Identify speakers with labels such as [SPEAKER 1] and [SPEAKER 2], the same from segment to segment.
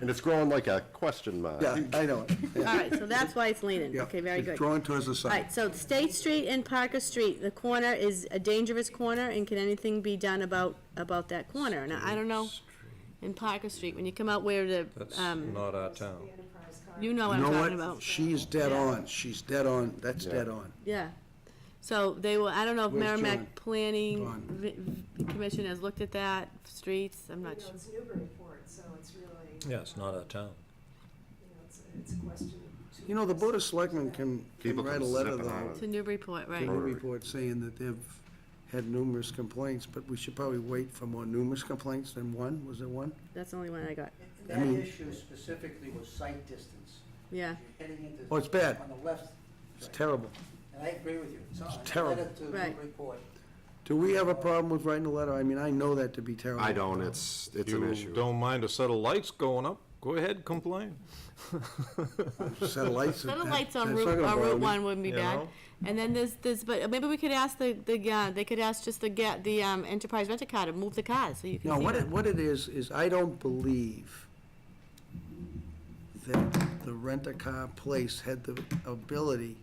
[SPEAKER 1] And it's growing like a question mark.
[SPEAKER 2] Yeah, I know. it. Yeah,
[SPEAKER 3] All right, so that's why it's leaning.
[SPEAKER 2] yeah.
[SPEAKER 3] Okay, very
[SPEAKER 2] It's
[SPEAKER 3] good. All
[SPEAKER 2] Drawn towards the side.
[SPEAKER 3] right, so State Street and Parker Street, the corner is a dangerous corner, and can anything be done about, about that corner? And I don't know, in Parker Street, when you come out where the,
[SPEAKER 4] That's
[SPEAKER 3] um,
[SPEAKER 4] not our town.
[SPEAKER 3] you know what
[SPEAKER 2] You
[SPEAKER 3] I'm
[SPEAKER 2] know
[SPEAKER 3] talking
[SPEAKER 2] what?
[SPEAKER 3] about.
[SPEAKER 2] She's dead
[SPEAKER 3] Yeah.
[SPEAKER 2] on. She's dead on. That's
[SPEAKER 1] Yeah.
[SPEAKER 2] dead on.
[SPEAKER 3] Yeah. So they were, I don't know if
[SPEAKER 2] Where's John?
[SPEAKER 3] Merrimack
[SPEAKER 2] John.
[SPEAKER 3] Planning Vi- Vi- Commission has looked at that, streets, I'm
[SPEAKER 5] You
[SPEAKER 3] not
[SPEAKER 5] know,
[SPEAKER 3] sure.
[SPEAKER 5] it's Newburyport, so it's really, you
[SPEAKER 4] Yeah, it's not our town.
[SPEAKER 5] know, it's, it's a question. to-
[SPEAKER 2] You know, the Board of Selectmen can, can
[SPEAKER 1] People
[SPEAKER 2] write a
[SPEAKER 1] come
[SPEAKER 2] letter
[SPEAKER 1] zipping
[SPEAKER 2] though,
[SPEAKER 1] on it.
[SPEAKER 3] To Newburyport,
[SPEAKER 2] to
[SPEAKER 3] right.
[SPEAKER 2] the report saying that they've had numerous complaints, but we should probably wait for more numerous complaints than one. Was there one?
[SPEAKER 3] That's the only one I got,
[SPEAKER 6] That issue specifically was sight distance.
[SPEAKER 3] yeah.
[SPEAKER 6] You're heading into-
[SPEAKER 2] Oh, it's bad.
[SPEAKER 6] On the left,
[SPEAKER 2] It's terrible.
[SPEAKER 6] and I agree with you. It's not-
[SPEAKER 2] terrible.
[SPEAKER 6] I read it
[SPEAKER 3] Right.
[SPEAKER 6] to the report.
[SPEAKER 2] Do we have a problem with writing a letter? I mean, I know that to be terrible.
[SPEAKER 1] I don't, it's, it's an
[SPEAKER 4] You
[SPEAKER 1] issue.
[SPEAKER 4] don't mind a set of lights going up, go ahead, complain.
[SPEAKER 2] Set of lights.
[SPEAKER 3] Set
[SPEAKER 2] that-
[SPEAKER 3] of lights on
[SPEAKER 2] that's not
[SPEAKER 3] Route,
[SPEAKER 2] gonna
[SPEAKER 3] on
[SPEAKER 2] bother
[SPEAKER 3] Route
[SPEAKER 2] me.
[SPEAKER 3] One wouldn't be
[SPEAKER 4] You
[SPEAKER 3] bad.
[SPEAKER 4] know?
[SPEAKER 3] And then there's, there's, but maybe we could ask the, the, uh, they could ask just the, ga- the, um, enterprise rent a car to move the cars, so you can see.
[SPEAKER 2] No, what
[SPEAKER 3] them.
[SPEAKER 2] it, what it is, is I don't believe that the rent-a-car place had the ability,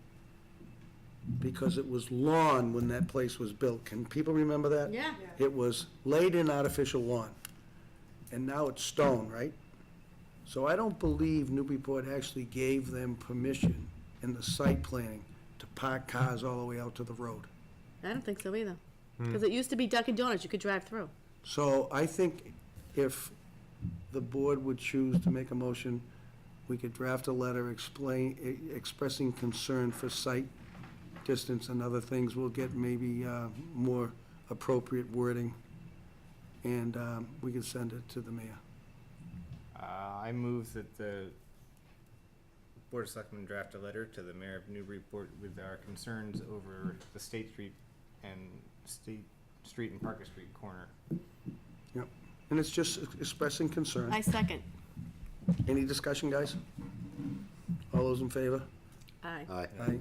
[SPEAKER 2] because it was lawn when that place was built. Can people remember that?
[SPEAKER 3] Yeah,
[SPEAKER 2] It was laid-in artificial lawn, and now it's stone, right? So I don't believe Newburyport actually gave them permission in the site planning to park cars all the way out to the road.
[SPEAKER 3] I don't think so either.
[SPEAKER 2] Hmm.
[SPEAKER 3] Cause it used to be Dunkin' Donuts, you could drive through.
[SPEAKER 2] So I think if the board would choose to make a motion, we could draft a letter explain, e- expressing concern for site distance and other things. We'll get maybe uh, more appropriate wording, and um, we can send it to the mayor.
[SPEAKER 7] Uh, I move that the Board of Selectmen draft a letter to the mayor of Newburyport with our concerns over the State Street and State Street and Parker Street corner.
[SPEAKER 2] Yep. And it's just expressing concern.
[SPEAKER 3] I second,
[SPEAKER 2] Any discussion, guys? All those in favor?
[SPEAKER 3] aye.
[SPEAKER 1] Aye.
[SPEAKER 2] Aye.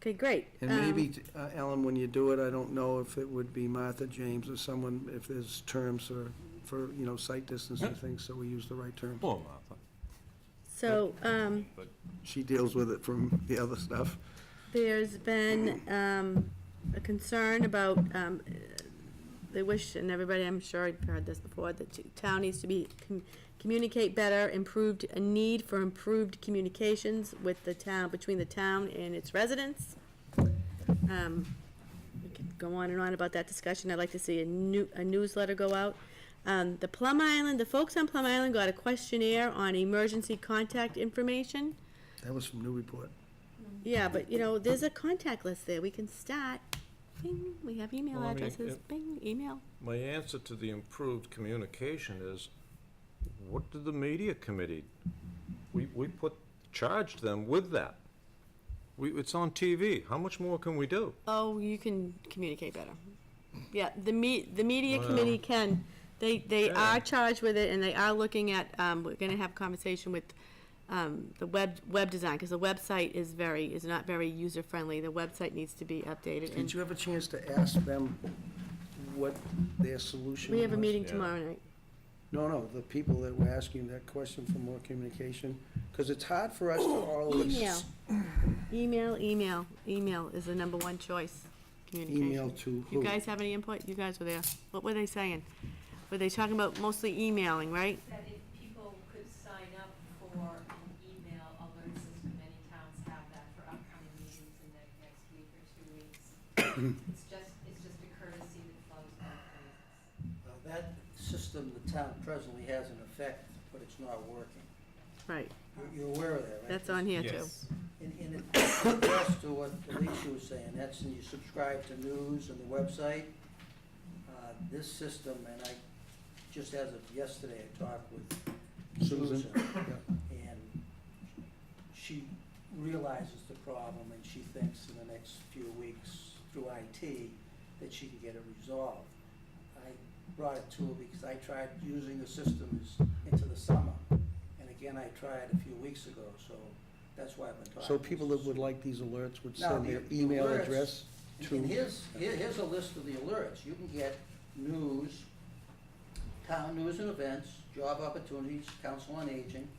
[SPEAKER 3] Okay, great.
[SPEAKER 2] And
[SPEAKER 3] Um,
[SPEAKER 2] maybe, uh, Ellen, when you do it, I don't know if it would be Martha James or someone, if there's terms or, for, you know, sight distance and things, so we use the right term.
[SPEAKER 4] Poor Martha.
[SPEAKER 3] So, um,
[SPEAKER 2] She deals with it from the other stuff.
[SPEAKER 3] There's been um, a concern about, um, they wish, and everybody, I'm sure you've heard this before, that t- town needs to be, com- communicate better, improved, a need for improved communications with the town, between the town and its residents. Um, We could go on and on about that discussion. I'd like to see a new, a newsletter go out. Um, The Plum Island, the folks on Plum Island got a questionnaire on emergency contact information.
[SPEAKER 2] That was from New Report.
[SPEAKER 3] Yeah, but you know, there's a contact list there. We can start. Bing, we have email
[SPEAKER 4] Well, I mean,
[SPEAKER 3] addresses.
[SPEAKER 4] it-
[SPEAKER 3] Bing, email.
[SPEAKER 4] My answer to the improved communication is, what did the media committee, we, we put, charged them with that. We, it's on TV, how much more can we do?
[SPEAKER 3] Oh, you can communicate better. Yeah, the me, the media
[SPEAKER 4] Well-
[SPEAKER 3] committee can. They, they
[SPEAKER 4] Yeah.
[SPEAKER 3] are charged with it and they are looking at, um, we're gonna have conversation with, um, the web, web design, because the website is very, is not very user-friendly. The website needs to be updated
[SPEAKER 2] Did
[SPEAKER 3] and
[SPEAKER 2] you have a chance to ask them what their solution was?
[SPEAKER 3] we have a meeting
[SPEAKER 4] Yeah.
[SPEAKER 3] tomorrow night.
[SPEAKER 2] No, no, the people that were asking that question for more communication, because it's hard for us to always.
[SPEAKER 3] Oh, Email. Email, email, email is the number one choice. Communication.
[SPEAKER 2] Email to who?
[SPEAKER 3] You guys have any input? You guys were there. What were they saying? Were they talking about mostly emailing, right?
[SPEAKER 8] that if people could sign up for an email alert system, many towns have that for upcoming meetings in the next week or two weeks. It's just, it's just a courtesy that flows both ways.
[SPEAKER 6] Uh, That system the town presently has in effect, but it's not working.
[SPEAKER 3] Right,
[SPEAKER 6] You're- You're aware of that, right?
[SPEAKER 3] that's on here too.
[SPEAKER 7] Yes.
[SPEAKER 6] And, and it contrasts to what Alicia was saying, that's when you subscribe to news and the website. Uh, This system, and I, just as of yesterday, I talked with
[SPEAKER 2] Susan.
[SPEAKER 6] Susan, and she realizes the problem, and she thinks in the next few weeks through IT that she can get it resolved. I brought it to her because I tried using the systems into the summer, and again, I tried a few weeks ago, so that's why I've been talking.
[SPEAKER 2] So people that would like these alerts would
[SPEAKER 6] Now,
[SPEAKER 2] send
[SPEAKER 6] the-
[SPEAKER 2] their
[SPEAKER 6] the
[SPEAKER 2] email
[SPEAKER 6] alerts-
[SPEAKER 2] address to.
[SPEAKER 6] And here's, here- here's a list of the alerts. You can get news, town news and events, job opportunities, council on aging,